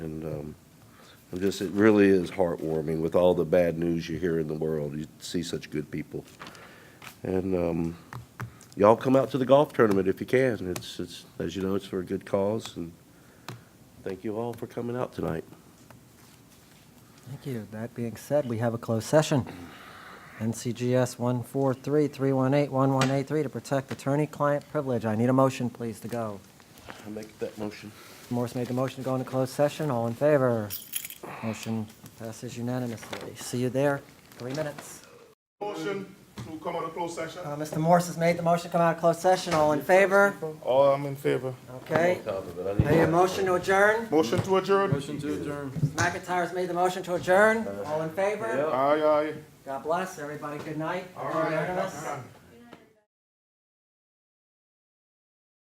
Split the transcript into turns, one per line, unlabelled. Um, I'm just, it really is heartwarming with all the bad news you hear in the world. You see such good people. And um, y'all come out to the golf tournament if you can. It's, it's, as you know, it's for a good cause, and thank you all for coming out tonight.
Thank you. That being said, we have a closed session. NCGS 143-318-1183 to protect attorney-client privilege. I need a motion, please, to go.
I make that motion.
Morse made the motion to go into closed session. All in favor? Motion passes unanimously. See you there. Three minutes.
Motion to come out of closed session.
Uh, Mr. Morse has made the motion to come out of closed session. All in favor?
All I'm in favor.
Okay. I need a motion to adjourn.
Motion to adjourn.
McIntyre's made the motion to adjourn. All in favor?
Aye, aye.
God bless, everybody. Good night. All right.